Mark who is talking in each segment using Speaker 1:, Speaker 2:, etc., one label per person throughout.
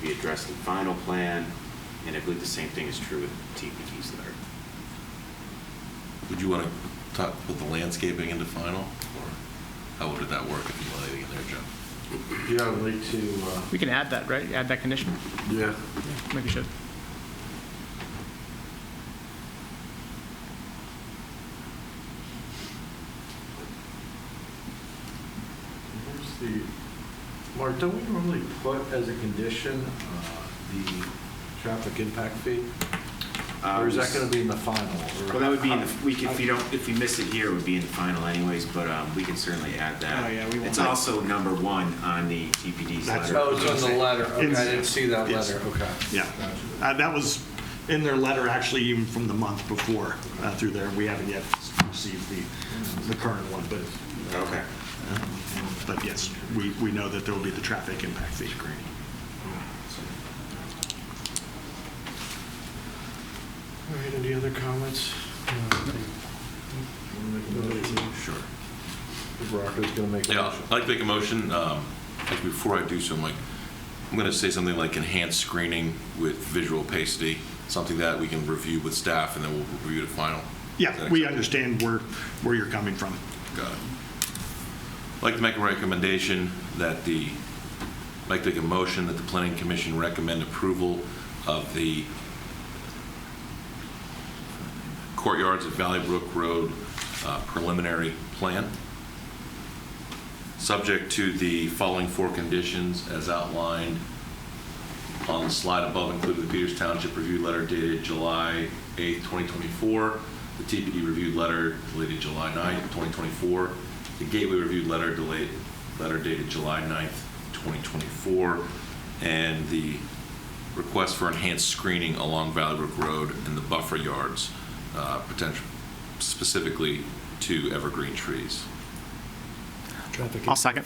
Speaker 1: be addressed in final plan, and I believe the same thing is true with TPD's letter.
Speaker 2: Would you want to talk, put the landscaping into final, or how would that work if you wanted it in there, Joe?
Speaker 3: Yeah, I'd like to,
Speaker 4: We can add that, right? Add that condition?
Speaker 3: uh, yeah,
Speaker 4: Maybe we should.
Speaker 3: where's the, Mark, don't we normally put as a condition uh, the traffic impact fee?
Speaker 1: Uh,
Speaker 3: Or is
Speaker 1: we
Speaker 3: that
Speaker 1: s-
Speaker 3: going to be in the final? or-
Speaker 1: Well, uh, that would be in the, we could, if you don't, if you miss it here, it would be in the final anyways, but um, we can certainly add that.
Speaker 4: Oh, yeah, we won't-
Speaker 1: It's also number one on the TPD's
Speaker 5: That's-
Speaker 1: letter.
Speaker 3: Oh, it's on the letter, okay, I didn't see that
Speaker 5: Yes.
Speaker 3: letter, okay.
Speaker 5: Yeah.
Speaker 3: Gotcha.
Speaker 5: Uh, That was in their letter, actually, even from the month before uh, through there. We haven't yet received the, the current one, but,
Speaker 1: Okay.
Speaker 5: but yes, we, we know that there will be the traffic impact fee.
Speaker 3: All right, any other comments? Sure. Rocco's going to make a
Speaker 2: Yeah,
Speaker 3: motion.
Speaker 2: I'd like to make a motion, um, like, before I do so, I'm like, I'm going to say something like enhanced screening with visual opacity, something that we can review with staff, and then we'll review the final. Is
Speaker 5: Yeah,
Speaker 2: that
Speaker 5: we
Speaker 2: acceptable?
Speaker 5: understand where, where you're coming from.
Speaker 2: Got it. I'd like to make a recommendation that the, I'd like to make a motion that the planning commission recommend approval of the courtyards at Valley Brook Road uh, preliminary plan, subject to the following four conditions as outlined on the slide above, including the Peters Township review letter dated July 8th, 2024, the TPD review letter dated July 9th, 2024, the Gateway review letter delayed, letter dated July 9th, 2024, and the request for enhanced screening along Valley Brook Road and the buffer yards, uh, potential, specifically to evergreen trees,
Speaker 4: I'll second.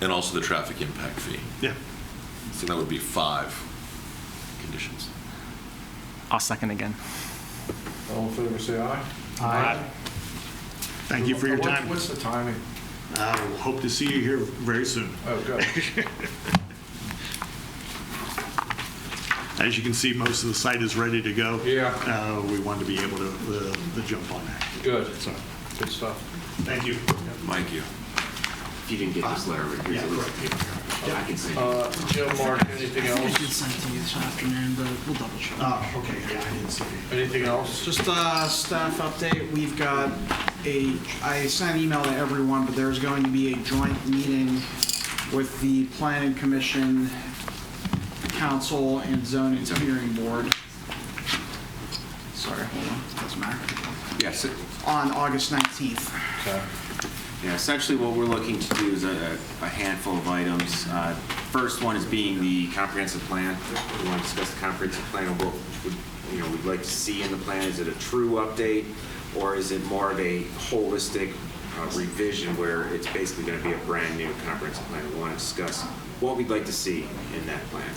Speaker 2: and also the traffic impact fee.
Speaker 5: Yeah.
Speaker 2: So that would be five conditions.
Speaker 4: I'll second again.
Speaker 3: All in favor, say aye.
Speaker 5: Thank you for your
Speaker 3: What-
Speaker 5: time.
Speaker 3: What's the timing?
Speaker 5: Uh, we'll Hope to see you here very soon.
Speaker 3: Oh, good.
Speaker 5: As you can see, most of the site is ready to go.
Speaker 3: Yeah.
Speaker 5: Uh, We want to be able to, uh, to jump on that.
Speaker 3: Good,
Speaker 5: So,
Speaker 3: good stuff.
Speaker 5: thank you.
Speaker 2: Mike, you.
Speaker 1: If you didn't get this letter, here's a little, I can send you.
Speaker 3: Uh, Jim, Mark, anything
Speaker 6: I think I did
Speaker 3: else?
Speaker 6: send to you this afternoon, but we'll double check.
Speaker 5: Oh, okay, yeah, I didn't see it.
Speaker 3: Anything else?
Speaker 6: Just a staff update, we've got a, I sent an email to everyone, but there's going to be a joint meeting with the planning commission, council, and zoning hearing board. Sorry, hold on, doesn't matter.
Speaker 1: Yes,
Speaker 6: On August 19th.
Speaker 3: Okay.
Speaker 1: Yeah, essentially what we're looking to do is a a handful of items. Uh, First one is being the comprehensive plan. We want to discuss the comprehensive plan and what, would- you know, we'd like to see in the plan. Is it a true update? Or is it more of a holistic uh, revision where it's basically going to be a brand-new comprehensive plan? We want to discuss what we'd like to see in that plan.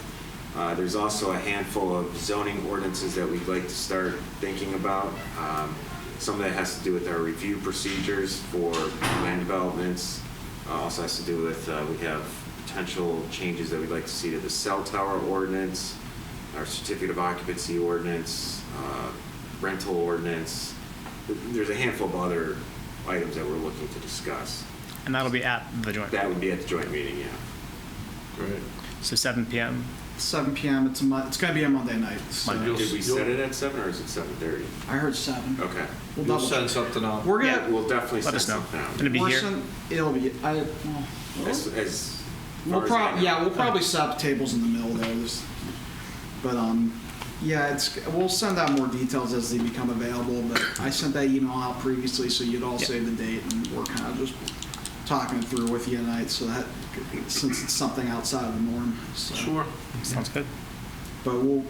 Speaker 1: Uh, There's also a handful of zoning ordinances that we'd like to start thinking about. Um, Some of that has to do with our review procedures for land developments. Uh, Also has to do with, uh, we have potential changes that we'd like to see to the cell tower ordinance, our certificate of occupancy ordinance, uh, rental ordinance. There's a handful of other items that we're looking to discuss.
Speaker 4: And that'll be at the joint.
Speaker 1: That would be at the joint meeting, yeah.
Speaker 3: Great.
Speaker 4: So 7 PM.
Speaker 6: 7 PM, it's a Mon, it's gonna be a Monday night, so,
Speaker 4: Monday.
Speaker 1: Did we set it at seven or is it 7:30?
Speaker 6: I heard 7.
Speaker 5: Oh.
Speaker 1: Okay.
Speaker 6: We'll
Speaker 3: You'll
Speaker 6: double
Speaker 3: send
Speaker 6: check.
Speaker 3: something out.
Speaker 6: We're
Speaker 1: Yeah,
Speaker 6: gonna,
Speaker 1: we'll definitely
Speaker 4: Let
Speaker 1: send
Speaker 4: us know.
Speaker 1: something out.
Speaker 4: It'll be
Speaker 6: we're
Speaker 4: here.
Speaker 6: send, it'll be, I, well,
Speaker 1: As, as
Speaker 6: We'll
Speaker 1: far as I
Speaker 6: prob,
Speaker 1: know.
Speaker 6: yeah, we'll probably set up tables in the middle there. There's- But, um, yeah, it's, we'll send out more details as they become available, but I sent that email out previously, so you'd all
Speaker 4: Yeah.
Speaker 6: save the date, and we're kind of just talking through with you tonight, so that, since it's something outside of the norm, so.
Speaker 3: Sure.
Speaker 4: Sounds good.
Speaker 6: But we'll,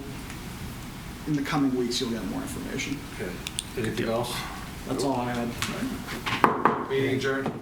Speaker 6: in the coming weeks, you'll get more information.
Speaker 3: Okay. Anything else?
Speaker 6: That's all I had.
Speaker 3: Meeting adjourned?